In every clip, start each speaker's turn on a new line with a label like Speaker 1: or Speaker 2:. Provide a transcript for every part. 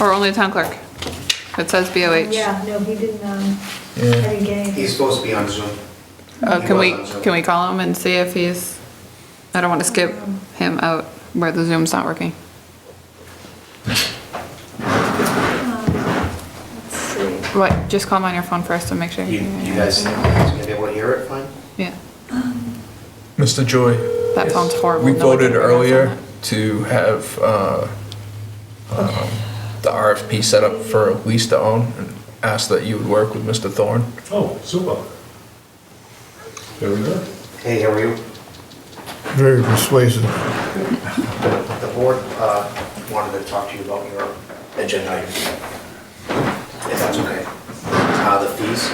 Speaker 1: Or only the town clerk? It says BOH.
Speaker 2: Yeah, no, he didn't, um, I
Speaker 3: Yeah.
Speaker 2: didn't get anything.
Speaker 4: He's supposed to be on Zoom.
Speaker 1: Oh,
Speaker 4: He
Speaker 1: can
Speaker 4: was
Speaker 1: we,
Speaker 4: on Zoom.
Speaker 1: can we call him and see if he's, I don't want to skip him out where the Zoom's not working.
Speaker 2: Um, Let's see.
Speaker 1: What, just call him on your phone first and make sure. he-
Speaker 4: You, you guys, you guys gonna be able to hear it fine?
Speaker 1: Yeah,
Speaker 3: Mr. Joy,
Speaker 1: that sounds horrible.
Speaker 3: we
Speaker 1: No one can
Speaker 3: voted
Speaker 1: hear us on
Speaker 3: earlier
Speaker 1: that.
Speaker 3: to have uh, um, the RFP set up for a lease to own and asked that you would work with Mr. Thorne.
Speaker 5: Oh, super. There we go.
Speaker 4: Hey, how are you?
Speaker 6: Very persuasive.
Speaker 4: The board, uh, wanted to talk to you about your agenda items. If that's okay. Uh, the fees,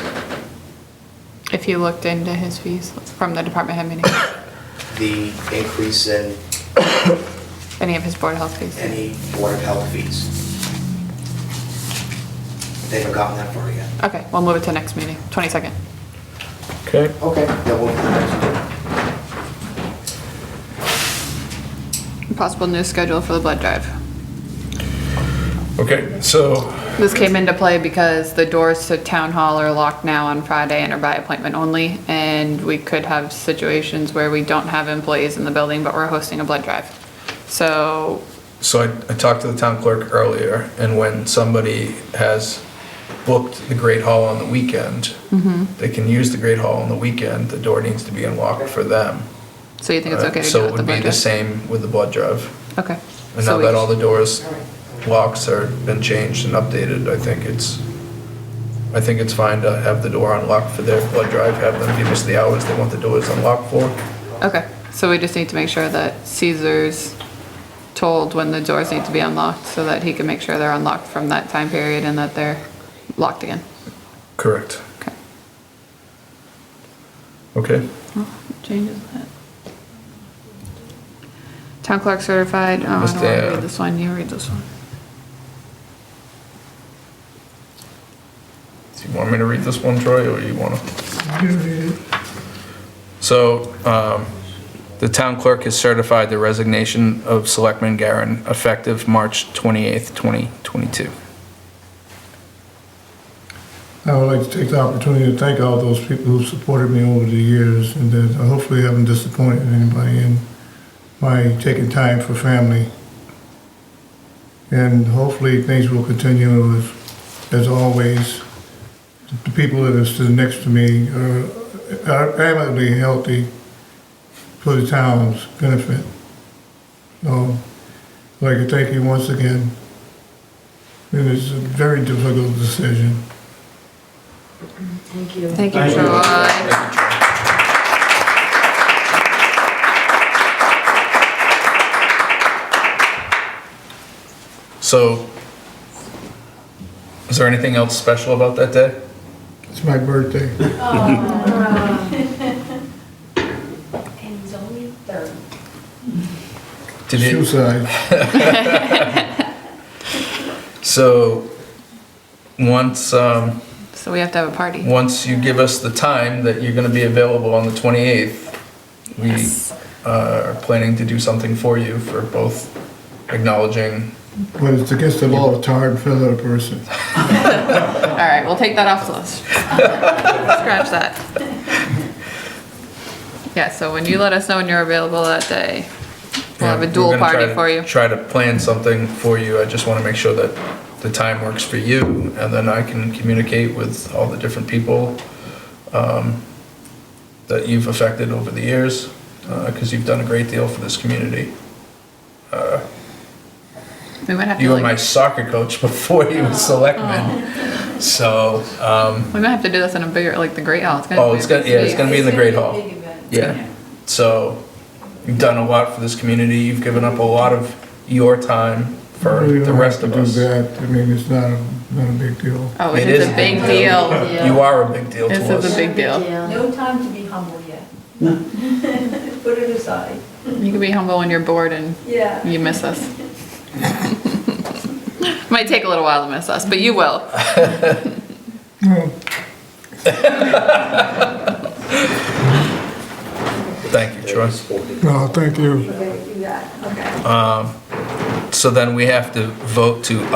Speaker 1: If you looked into his fees from the department head meeting,
Speaker 4: the increase in
Speaker 1: any of his board of health fees.
Speaker 4: any board of health fees. They haven't gotten that far yet.
Speaker 1: Okay, we'll move it to next meeting, 22nd.
Speaker 3: Okay.
Speaker 4: Okay, then we'll, next
Speaker 1: Possible new schedule for the blood drive.
Speaker 3: Okay, so
Speaker 1: This came into play because the doors to town hall are locked now on Friday and are by appointment only, and we could have situations where we don't have employees in the building, but we're hosting a blood drive. So,
Speaker 3: So I, I talked to the town clerk earlier, and when somebody has booked the Great Hall on the weekend,
Speaker 1: Mm-hmm.
Speaker 3: they can use the Great Hall on the weekend, the door needs to be unlocked for them. Uh,
Speaker 1: so you think it's okay to
Speaker 3: So
Speaker 1: do
Speaker 3: it
Speaker 1: it with the
Speaker 3: would be
Speaker 1: blood
Speaker 3: the
Speaker 1: drive?
Speaker 3: same with the blood drive.
Speaker 1: Okay.
Speaker 3: And
Speaker 1: So
Speaker 3: now
Speaker 1: we
Speaker 3: that all the doors, locks are, been changed and updated, I think it's, I think it's fine to have the door unlocked for their blood drive, have them give us the hours they want the doors unlocked for.
Speaker 1: just- Okay, so we just need to make sure that Caesar's told when the doors need to be unlocked, so that he can make sure they're unlocked from that time period and that they're locked again.
Speaker 3: Correct.
Speaker 1: Okay.
Speaker 3: Okay.
Speaker 1: Oh, Changes that. Town clerk certified, oh, I don't wanna
Speaker 3: Mr.
Speaker 1: read this one, you read this one.
Speaker 3: Do you want me to read this one, Troy, or you want to? So, um, the town clerk has certified the resignation of Selectman Garen effective March 28th, 2022.
Speaker 6: I would like to take the opportunity to thank all those people who supported me over the years and that I hopefully haven't disappointed anybody in my taking time for family. And hopefully things will continue as, as always. The people that are stood next to me are are adamantly healthy for the town's benefit. So, I'd like to thank you once again. It is a very difficult decision.
Speaker 7: Thank you.
Speaker 1: Thank you,
Speaker 5: Thank you.
Speaker 1: Troy.
Speaker 3: So, is there anything else special about that day?
Speaker 6: It's my birthday.
Speaker 7: Uh, And it's only third.
Speaker 3: Did
Speaker 6: Shoe
Speaker 3: you,
Speaker 6: size.
Speaker 3: so, once, um,
Speaker 1: So we have to have a party.
Speaker 3: once you give us the time that you're gonna be available on the 28th, we uh, are planning to do something for you for both acknowledging
Speaker 6: But it's against the law to tar and feather a person.
Speaker 1: All right, we'll take that off the list. Scratch that. Yeah, so when you let us know when you're available that day, we'll have a
Speaker 3: Yeah, we're
Speaker 1: dual
Speaker 3: gonna try
Speaker 1: party
Speaker 3: to-
Speaker 1: for you.
Speaker 3: Try to plan something for you. I just want to make sure that the time works for you, and then I can communicate with all the different people um, that you've affected over the years, because you've done a great deal for this community. Uh,
Speaker 1: We might have
Speaker 3: You
Speaker 1: to
Speaker 3: were my
Speaker 1: like,
Speaker 3: soccer coach before you was
Speaker 1: Oh.
Speaker 3: selectman, so, um,
Speaker 1: we might have to do this in a bigger, like the Great Hall. It's gonna
Speaker 3: oh,
Speaker 1: be a
Speaker 3: it's gonna,
Speaker 1: big
Speaker 3: yeah, it's gonna be in the Great Hall.
Speaker 7: Big event.
Speaker 3: Yeah. So you've done a lot for this community. You've given up a lot of your time for
Speaker 6: Really
Speaker 3: the
Speaker 6: don't
Speaker 3: rest
Speaker 6: have
Speaker 3: of
Speaker 6: to do
Speaker 3: us.
Speaker 6: that. I mean, it's not, a not a big deal.
Speaker 1: Oh, it
Speaker 3: It
Speaker 1: is
Speaker 3: is
Speaker 1: a big
Speaker 7: big
Speaker 1: deal.
Speaker 7: deal. Yeah.
Speaker 3: You are a big deal
Speaker 1: This
Speaker 3: to
Speaker 1: is a
Speaker 3: us.
Speaker 1: big deal.
Speaker 7: No time to be humble yet. Put it aside.
Speaker 1: You can be humble when you're bored and
Speaker 7: Yeah.
Speaker 1: You miss us. Might take a little while to miss us, but you will.
Speaker 6: No,
Speaker 3: Thank you, Troy.
Speaker 6: no, thank you.
Speaker 2: Okay, you got it, okay.
Speaker 3: So then we have to vote to